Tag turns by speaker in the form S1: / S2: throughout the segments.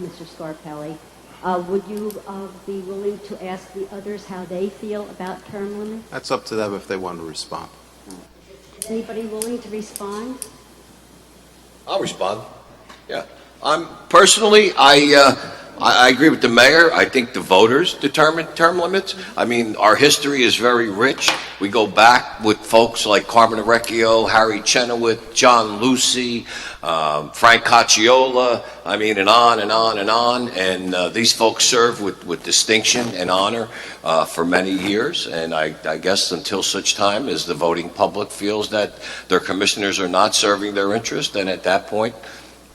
S1: Mr. Scarpelli. Uh, Would you uh, be willing to ask the others how they feel about term limits?
S2: That's up to them if they want to respond.
S1: Is Anybody willing to respond?
S3: I'll respond. Yeah. I'm personally, I, uh, I I agree with the mayor. I think the voters determine term limits. I mean, our history is very rich. We go back with folks like Carmen Recchio, Harry Chenoweth, John Lucy, um, Frank Cacciola. I mean, and on and on and on. And uh, these folks serve with, with distinction and honor uh, for many years. And I, I guess until such time as the voting public feels that their commissioners are not serving their interest, then at that point,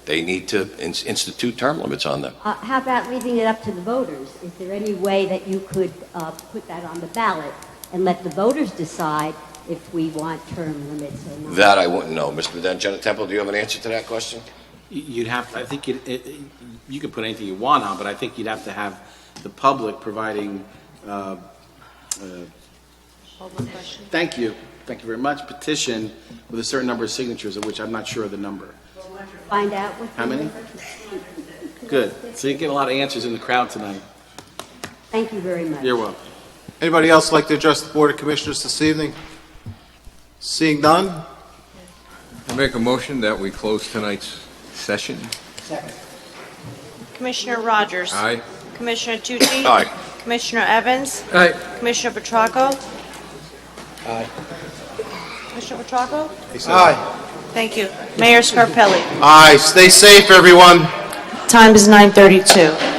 S3: they need to in- institute term limits on them.
S1: Uh, How about leaving it up to the voters? Is there any way that you could uh, put that on the ballot and let the voters decide if we want term limits or not?
S3: That I wouldn't know. Mr. Dangenta Temple, do you have an answer to that question?
S4: You- You'd have, I think it, it, you could put anything you want on, but I think you'd have to have the public providing, uh, uh, thank you, thank you very much, petition with a certain number of signatures, of which I'm not sure of the number.
S1: Find out what.
S4: How
S1: the-
S4: many? Good. So you get a lot of answers in the crowd tonight.
S1: Thank you very much.
S4: You're welcome.
S2: Anybody else like to address the Board of Commissioners this evening? Seeing none,
S5: I make a motion that we close tonight's session.
S6: Commissioner Rogers.
S5: Aye.
S6: Commissioner Tucci.
S3: Aye.
S6: Commissioner Evans.
S5: Aye.
S6: Commissioner Petracco. Aye. Commissioner Petracco? Thank you. Mayor Scarpelli.
S2: aye, stay safe, everyone.
S6: Time is 9:32.